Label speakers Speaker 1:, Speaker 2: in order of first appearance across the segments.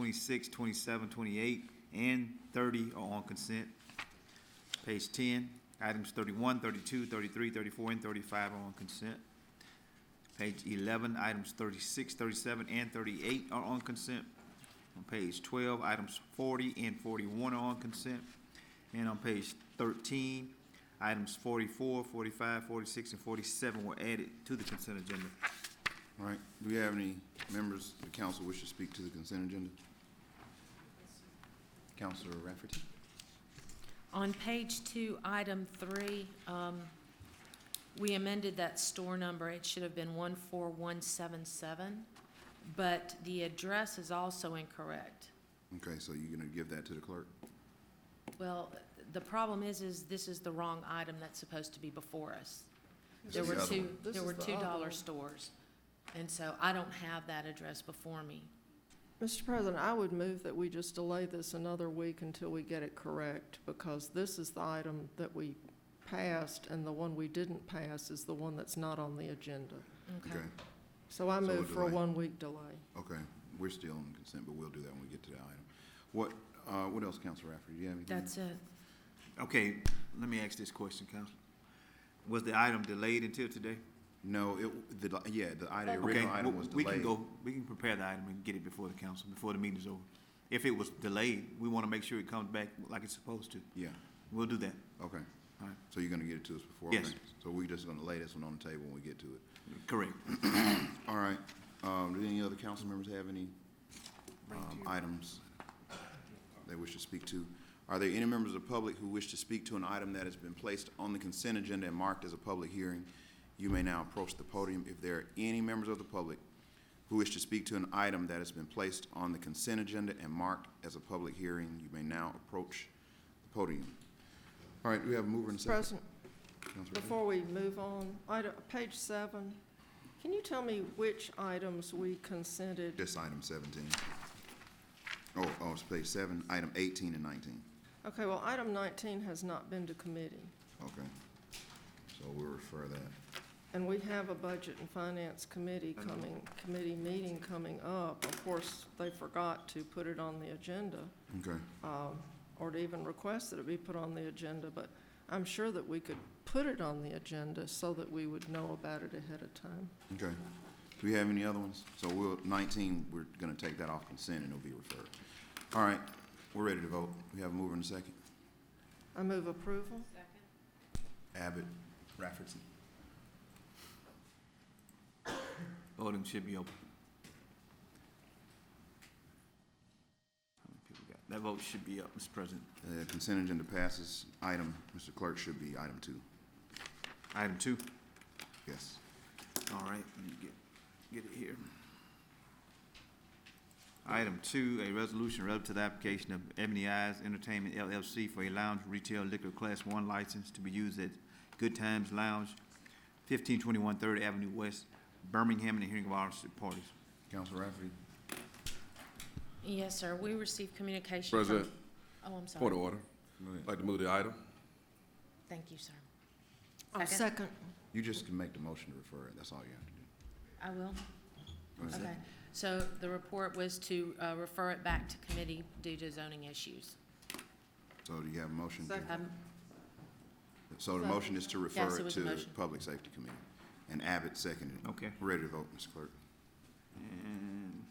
Speaker 1: 26, 27, 28, and 30 are on consent. Page 10, items 31, 32, 33, 34, and 35 are on consent. Page 11, items 36, 37, and 38 are on consent. On page 12, items 40 and 41 are on consent. And on page 13, items 44, 45, 46, and 47 were added to the consent agenda.
Speaker 2: All right, do we have any members of the council wish to speak to the consent agenda? Counselor Rafferty?
Speaker 3: On page two, item three, um, we amended that store number. It should have been one four one seven seven, but the address is also incorrect.
Speaker 2: Okay, so you're gonna give that to the clerk?
Speaker 3: Well, the problem is, is this is the wrong item that's supposed to be before us.
Speaker 2: This
Speaker 3: There
Speaker 2: is
Speaker 3: were
Speaker 2: the other
Speaker 3: two,
Speaker 2: one.
Speaker 3: there were two dollar stores, and so I don't have that address before me.
Speaker 4: Mr. President, I would move that we just delay this another week until we get it correct, because this is the item that we passed, and the one we didn't pass is the one that's not on the agenda.
Speaker 3: Okay.
Speaker 4: So I
Speaker 2: So we'll
Speaker 4: move for a
Speaker 2: delay.
Speaker 4: one-week delay.
Speaker 2: Okay, we're still on consent, but we'll do that when we get to that item. What, uh, what else, Counselor Rafferty, do you have anything?
Speaker 3: That's it.
Speaker 1: Okay, let me ask this question, Council. Was the item delayed until today?
Speaker 2: No, it, the, yeah, the item,
Speaker 1: Okay,
Speaker 2: original item was
Speaker 1: we
Speaker 2: delayed.
Speaker 1: can go, we can prepare the item and get it before the council, before the meeting's over. If it was delayed, we want to make sure it comes back like it's supposed to.
Speaker 2: Yeah,
Speaker 1: We'll do that.
Speaker 2: okay.
Speaker 1: All right.
Speaker 2: So you're gonna get it to us before?
Speaker 1: Yes.
Speaker 2: okay. So we're just gonna lay this one on the table when we get to it.
Speaker 1: Correct.
Speaker 2: All right, um, do any other council members have any, um, items they wish to speak to? Are there any members of the public who wish to speak to an item that has been placed on the consent agenda and marked as a public hearing? You may now approach the podium. If there are any members of the public who wish to speak to an item that has been placed on the consent agenda and marked as a public hearing, you may now approach the podium. All right, we have a mover and a
Speaker 4: Mr.
Speaker 2: second.
Speaker 4: President,
Speaker 2: Councilor Ripley?
Speaker 4: before we move on, item, page seven, can you tell me which items we consented?
Speaker 2: Just item seventeen. Oh, oh, it's page seven, item eighteen and nineteen.
Speaker 4: Okay, well, item nineteen has not been to committee,
Speaker 2: Okay. So we'll refer that.
Speaker 4: and we have a budget and finance committee coming, committee meeting coming up. Of course, they forgot to put it on the agenda.
Speaker 2: Okay,
Speaker 4: um, or to even request that it be put on the agenda, but I'm sure that we could put it on the agenda so that we would know about it ahead of time.
Speaker 2: okay. Do we have any other ones? So we'll, nineteen, we're gonna take that off consent and it'll be referred. All right, we're ready to vote. We have a mover and a second.
Speaker 4: I move approval.
Speaker 2: Abbott, Rafferty.
Speaker 1: Voting should be open. How many people got- That vote should be up, Mr. President.
Speaker 2: Uh, consent agenda passes. Item, Mr. Clerk, should be item two.
Speaker 1: Item two.
Speaker 2: Yes.
Speaker 1: All right, let me get, get it here. Item two, a resolution relative to the application of Ebony Eyes Entertainment LLC for a lounge retail liquor class one license to be used at Good Times Lounge, fifteen twenty-one Third Avenue West, Birmingham, and the hearing of all interested parties.
Speaker 2: Councilor Rafferty?
Speaker 3: Yes, sir. We received communication from.
Speaker 5: President,
Speaker 3: Oh, I'm
Speaker 5: point of
Speaker 3: sorry.
Speaker 5: order.
Speaker 2: Uh,
Speaker 5: I'd like to move the item.
Speaker 3: Thank you, sir.
Speaker 4: I'll
Speaker 3: Second.
Speaker 4: second.
Speaker 2: You just can make the motion to refer it. That's all you have to do.
Speaker 3: I will.
Speaker 2: Go ahead.
Speaker 3: Okay, so the report was to uh, refer it back to committee due to zoning issues.
Speaker 2: So do you have a motion? to-
Speaker 4: Second.
Speaker 3: Um,
Speaker 2: So the motion is to
Speaker 3: Yes,
Speaker 2: refer
Speaker 3: it
Speaker 2: it
Speaker 3: was a
Speaker 2: to
Speaker 3: motion.
Speaker 2: Public Safety Committee. And Abbott seconded it.
Speaker 1: Okay.
Speaker 2: Ready to vote, Mr. Clerk?
Speaker 1: And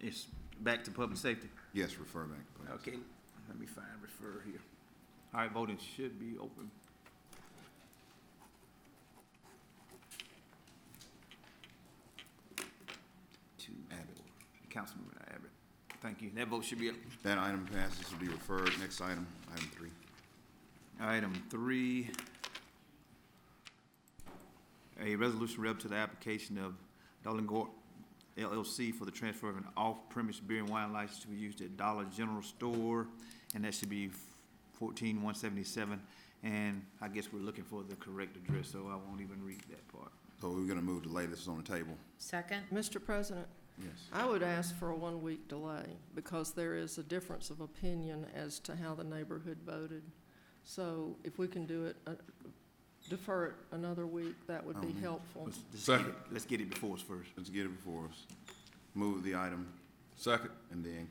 Speaker 1: it's back to public safety.
Speaker 2: Yes, refer back. please.
Speaker 1: Okay, let me find refer here. All right, voting should be open. To
Speaker 2: Abbott.
Speaker 1: Councilman Abbott. Thank you. That vote should be up.
Speaker 2: That item passes to be referred. Next item, item three.
Speaker 1: Item three, a resolution rep to the application of Dolan Gore LLC for the transfer of an off-premise beer and wine license to be used at Dollar General Store, and that should be fourteen one seventy-seven. And I guess we're looking for the correct address, so I won't even read that part.
Speaker 2: So we're gonna move to lay this on the table.
Speaker 3: Second,
Speaker 4: Mr. President,
Speaker 2: Yes.
Speaker 4: I would ask for a one-week delay because there is a difference of opinion as to how the neighborhood voted. So if we can do it, uh, defer it another week, that would be
Speaker 2: Um,
Speaker 4: helpful.
Speaker 1: Let's- let's get it-
Speaker 5: Second.
Speaker 1: Let's get it before us first.
Speaker 2: Let's get it before us. Move the item
Speaker 5: Second.
Speaker 2: and then